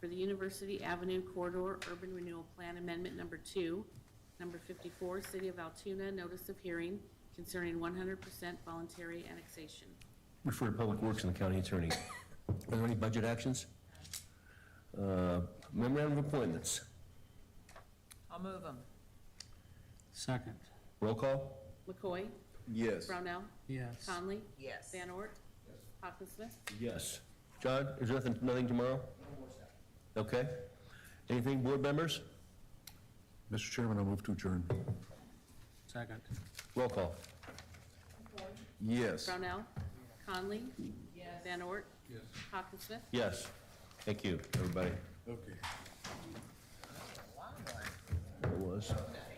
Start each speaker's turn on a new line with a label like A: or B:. A: for the University Avenue Corridor Urban Renewal Plan Amendment Number Two, Number 54, City of Altoona, notice of hearing concerning 100% voluntary annexation.
B: Refer to Public Works and the county attorney. Are there any budget actions? Uh, Memorandum of appointments.
C: I'll move them.
D: Second,
B: Roll call?
A: McCoy?
E: Yes.
A: Brownell?
D: yes.
A: Conley?
C: Yes.
A: Van Ort? Hawkins Smith?
B: Yes. John, is there nothing, nothing tomorrow? Okay. Anything, board members?
E: Mr. Chairman, I'll move to adjourn.
D: Second,
B: Roll call?
E: Yes.
A: Brownell? Conley? Yes. Van Ort? Yes. Hawkins Smith?
B: Yes. Thank you, everybody.
E: Okay.
B: It was.